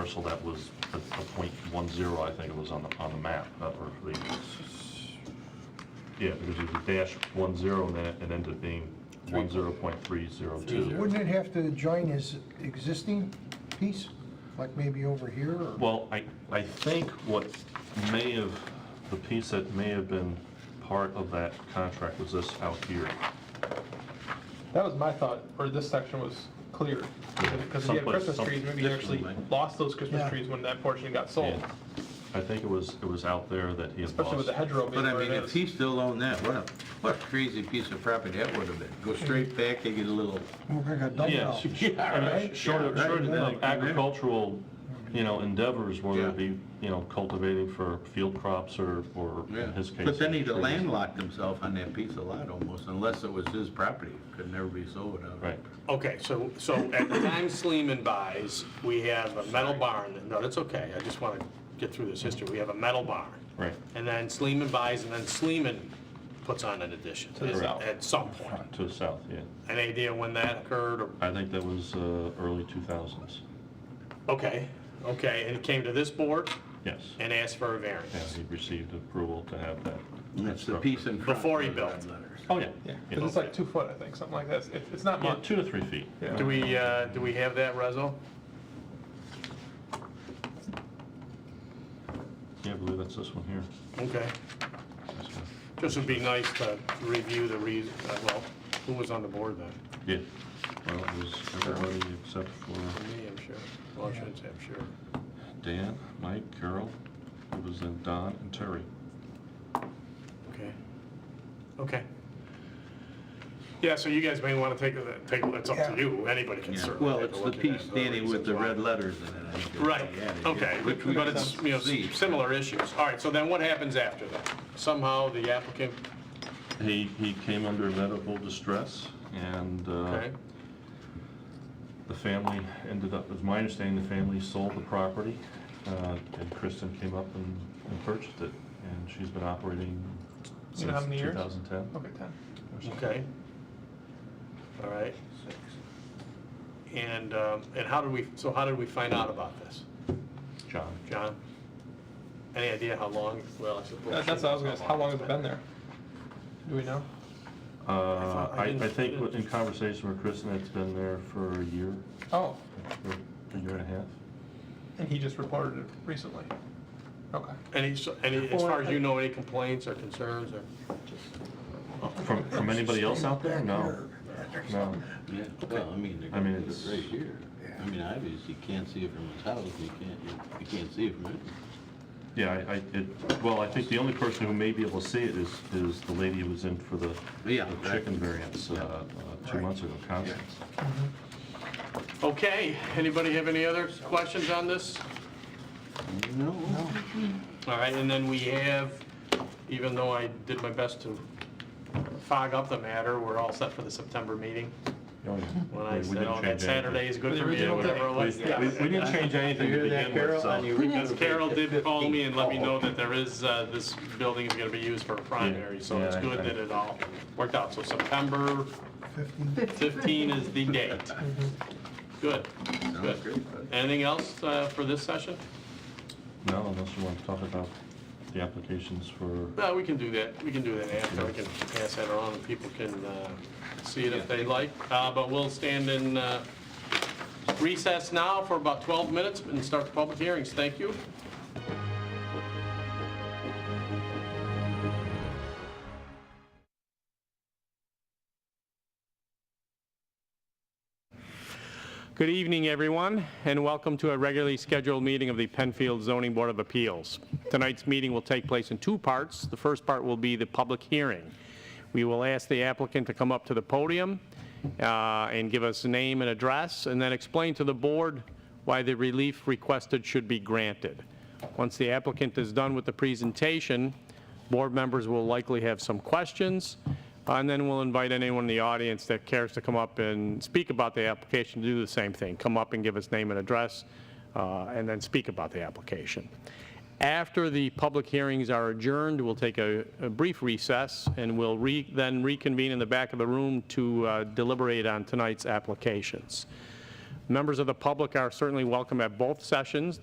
parcel that was the the point one zero, I think it was on the, on the map, uh, or the, yeah, because it was a dash one zero, and then it it ended up being one zero point three zero two. Wouldn't it have to join his existing piece, like maybe over here or? Well, I, I think what may have, the piece that may have been part of that contract was this out here. That was my thought, or this section was clear, because if you had Someplace- Christmas some- trees, maybe you actually lost those Christmas Yeah. trees when that portion got sold, And I think it was, it was out there that he had Oh. especially lost. with the hedgerow being But I where it mean, if he is. still owned that, what a, what a crazy piece of property that would have been. Go straight back, you get a little, We're gonna dump it Yeah, out. Yeah, I mean, right. short of, Yeah, short right. of agricultural, you know, endeavors, whether it Yeah. be, you know, cultivating for field crops or, or in yeah. his case. But then he'd trees. landlocked himself on that piece of lot almost, unless it was his property. Could never be sold out. of it. Right, Okay, so, so at the time Sleeman buys, we have a metal barn, no, that's okay, I just want to get through this history, we have a metal barn. Right. And then Sleeman buys, and then Sleeman puts on an addition the at south. at some point. to the south, yeah. Any idea when that occurred, or, I think that was uh, early 2000s, okay, okay, and it came to this board yes. and asked for a And variance. he received approval to have that. And It's the piece in front. Before he with built. red letters. Oh, yeah. Yeah, 'cause it's like two foot, I think, something like that, It's- it's not Yeah, much. two to three feet. Yeah. Do we, uh, do we have that, Rezo? Yeah, I believe that's this one here. Okay, This one. just would be nice to review the reason, uh, well, who was on the board then? Yeah, well, it was everybody except for For me, I'm sure. Well, I shouldn't say I'm sure. Dan, Mike, Carol, it was then Don and Terry. Okay. Okay. Yeah, so you guys may want to take, a- take, a- it's up to Yeah. you, anybody can Yeah. certainly Well, take a it's the look at that. piece, Danny, with the red letters in it. I think. Right, Yeah, yeah. okay, Which we but it's, can you know, see. s- similar issues. All right, so then what happens after that? Somehow the applicant, He, he came under medical distress, and uh, okay, the family ended up, as my understanding, the family sold the property, uh, and Kristen came up and and purchased it, and she's been operating You since know how many years? 2010. Okay, 10. or so. okay. All right. And, um, and how did we, so how did we find out about this, John. John? Any idea how long, well, I suppose. That- That's what I was gonna say, how long has it been there? Do we know? Uh, thought- I I, didn't- I think didn't- in conversation with Kristen, it's been there for a year, Oh, or a year and a half. and he just reported it recently. Okay. Any, so- any, as far as you know, any complaints or concerns or? From, from anybody else out there? No, no. Yeah, well, I mean, they're I mean, gonna put it's- it right here. I mean, obviously, you can't see it from his house, you can't, you can't see it from it. Yeah, I, I, it, well, I think the only person who may be able to see it is, is the lady who was in for the Yeah, the that- chicken variance, uh, uh, two months ago, Constance. Okay, anybody have any other questions on this? No. All right, and then we have, even though I did my best to fog up the matter, we're all set for the September meeting. Oh, yeah. When Yeah, I we said, didn't oh, that change Saturday anything. is good The for me, or original whatever. thing. it was. We- we- Yeah. We didn't change anything to begin with, so. Because Carol did call me and let me know that there is, uh, this building is gonna be used for a primary, so it's Yeah, I- good I- that it all worked out. So September 15 is the date. Good, Sounds good. great, bud. Anything else uh, for this session? No, unless you want to talk about the applications for, No, we can do that, we can do that after, we can pass that around, and people can uh, see it if they like. Uh, But we'll stand in uh, recess now for about 12 minutes and start the public hearings. Thank you. Good evening, everyone, and welcome to a regularly scheduled meeting of the Penfield Zoning Board of Appeals. Tonight's meeting will take place in two parts. The first part will be the public hearing. We will ask the applicant to come up to the podium uh, and give us a name and address, and then explain to the board why the relief requested should be granted. Once the applicant is done with the presentation, board members will likely have some questions, and then we'll invite anyone in the audience that cares to come up and speak about the application to do the same thing. Come up and give us name and address, uh, and then speak about the application. After the public hearings are adjourned, we'll take a a brief recess, and we'll re- then reconvene in the back of the room to uh, deliberate on tonight's applications. Members of the public are certainly welcome at both sessions.